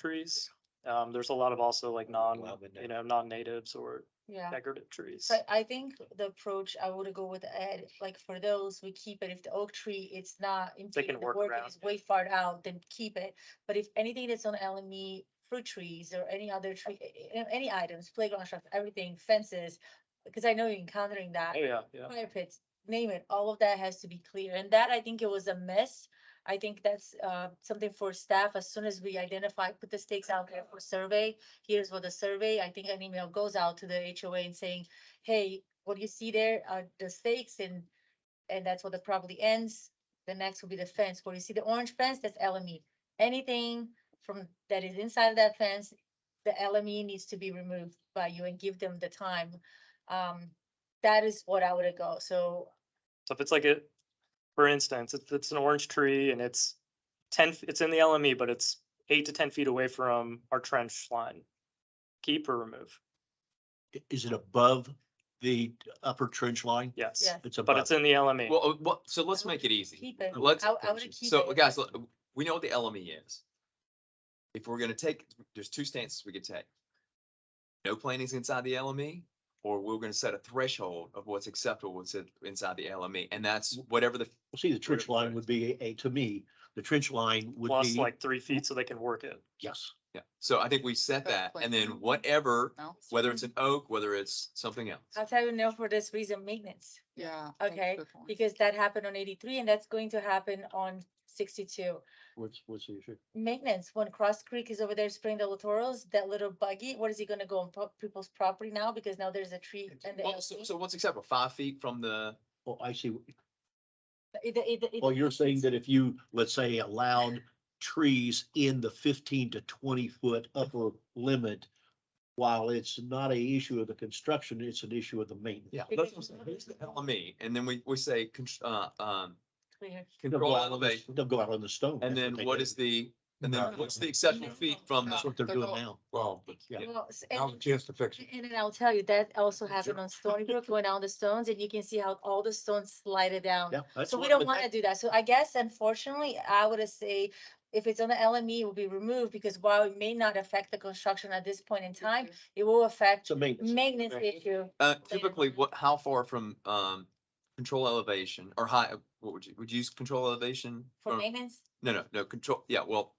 trees. Um, there's a lot of also like non, Lavender. you know, non-natives or Yeah. decorative trees. So I think the approach I would go with Ed, like for those, we keep it. If the oak tree, it's not impeding the work work, around it's it. way far out, then keep it. But if anything that's on LME, fruit trees or any other tree, a- a- any items, playground stuff, everything, fences, because I know you're encountering that. Oh, yeah, yeah. fire pits, name it, all of that has to be clear, and that I think it was a miss. I think that's uh something for staff, as soon as we identify, put the stakes out there for survey, here's what the survey, I think an email goes out to the HOA and saying, hey, what you see there are the stakes and and that's what the property ends, the next will be the fence, where you see the orange fence, that's LME. Anything from that is inside of that fence, the LME needs to be removed by you and give them the time. Um, that is what I would go. So So if it's like a, for instance, if it's an orange tree and it's ten, f- it's in the LME, but it's eight to ten feet away from our trench line. Keep or remove? I- Is it above the upper trench line? Yes, Yeah. It's but above. it's in the E, LME. Well, uh, well, so let's make it easy. keep it. Let's, I, I would keep so it. guys, look, we know what the LME is. If we're gonna take, there's two stances we could take. No plantings inside the LME, or we're gonna set a threshold of what's acceptable what's in- inside the LME, and that's whatever the, Well, See, the trench line would be a, to me, the trench line would Plus be, like three feet so they can work it. yes. yeah. So I think we set Oak that, and then planting. whatever, No? whether it's an oak, whether it's something else. I'll tell you no for this reason, maintenance, Yeah. that's a Okay, good point. because that happened on eighty-three and that's going to happen on sixty-two. What's, what's the issue? Maintenance, when Cross Creek is over there spraying the littorals, that little buggy, what is he gonna go on po- people's property now? Because now there's a tree and the. E? Well, so, LP. so what's acceptable? Five feet from the, Oh, I see. It- it- it- Well, you're saying that if you, let's say, allowed trees in the fifteen to twenty foot upper limit, while it's not a issue of the construction, it's an issue of the maintenance. yeah, that's what I'm saying. Here's the LME, and then we, we say, con- uh, um, clear. They'll go control out on the- elevation. They'll go out on the stone. That's And then they what do. Uh-huh. is the, and No. then what's the exceptional feet from That's the, what they're They're doing going- now. Well, but Yeah. Well, s- now's the and- chance to fix it. And then I'll tell you, that also happened on Stony Brook, went on the stones and you can see how all the stones slided down. Yeah. that's So we what- don't but want to do that. So I guess unfortunately, I would say if it's on the LME, it will be removed because while it may not affect the construction at this point in time, it will affect It's a maintenance. maintenance Right. issue. uh, typically what, how far from, um, control elevation or high, what would you, would you use control elevation? For Or- maintenance, No, no, no, control, yeah, well,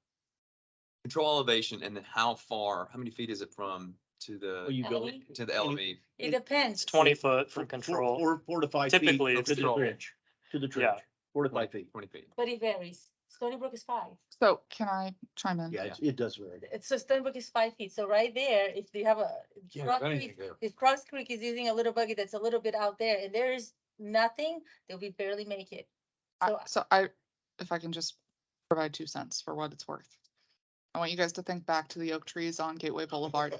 control elevation and then how far, how many feet is it from to Well, the, you go LME? to the E? any- LME? it It- depends. It's twenty foot four- from control. Four, four to five feet. Typically, To it's the control. trench, to the Yeah. trench, four to five feet. Twenty feet. But it varies. Stony Brook is five. So can I chime in? Yeah, it's- it does vary. It's- So Stony Brook is five feet. So right there, if you have a. Yeah, Rock anything Creek- there. If Cross Creek is using a little buggy that's a little bit out there and there is nothing, they'll be barely make it. I- So So I, if I can just provide two cents for what it's worth. I want you guys to think back to the oak trees on Gateway Boulevard.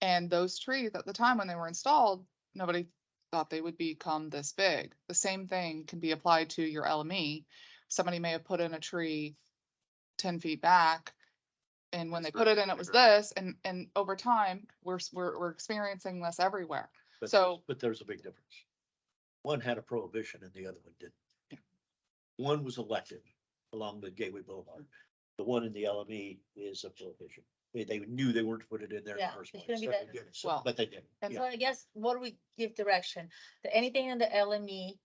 And those trees, at the time when they were installed, nobody thought they would become this big. The same thing can be applied to your LME. Somebody may have put in a tree ten feet back. And when they That's put right, it in, I it was agree. this, and, and over time, we're, s- we're, we're experiencing this everywhere. But So- there's- But there's a big difference. One had a prohibition and the other one didn't. One was elected along the Gateway Boulevard. The one in the LME is a prohibition. They, they knew they weren't to put it in there in the Yeah, first it's place. gonna be So that- they did. So- Well- But they did. And so Yeah, I guess what we give direction, that anything in the LME,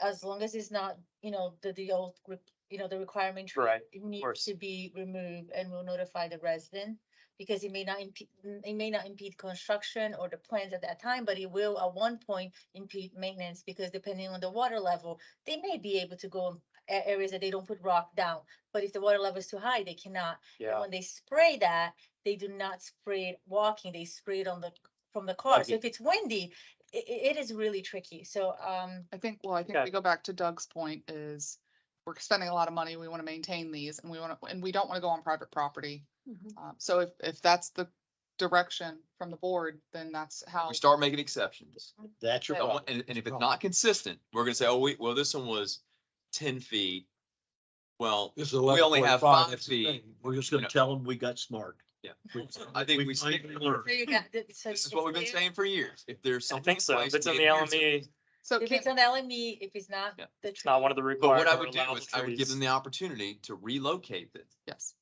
as long as it's not, you know, the, the old, re- you know, the requirement. tree, Right, It needs course. to be removed and we'll notify the resident because it may not impede, it may not impede construction or the plans at that time, but it will at one point impede maintenance because depending on the water level, they may be able to go in a- areas that they don't put rock down, but if the water level is too high, they cannot. And Yeah, when they spray that, they do not spray it walking, they spray it on the, from the car. Okay. So if it's windy, i- i- it is really tricky. So, um, I think, well, I think Yeah. we go back to Doug's point is we're spending a lot of money. We want to maintain these and we want to, and we don't want to go on private property. Mm-hmm. Um, so if, if that's the direction from the board, then that's how. We start making exceptions. That's your Don't problem. want- And, and if it's not consistent, we're gonna say, oh, we, well, this one was ten feet. Well, This is We only 11.5, have five that's the feet. thing. We're just you gonna know- tell them we got smart. Yeah. We- I think we stick- finally learned. so you got. th- so Hmm. this is it's what we've been there. saying for years. If there's I something. think so. If place, it's we in the E adhere to it. LME, So If can, it's an LME, if it's not Yeah. the It's tree. not one of the But required what I or would do allowable is I would give trees. them the opportunity to relocate it yes.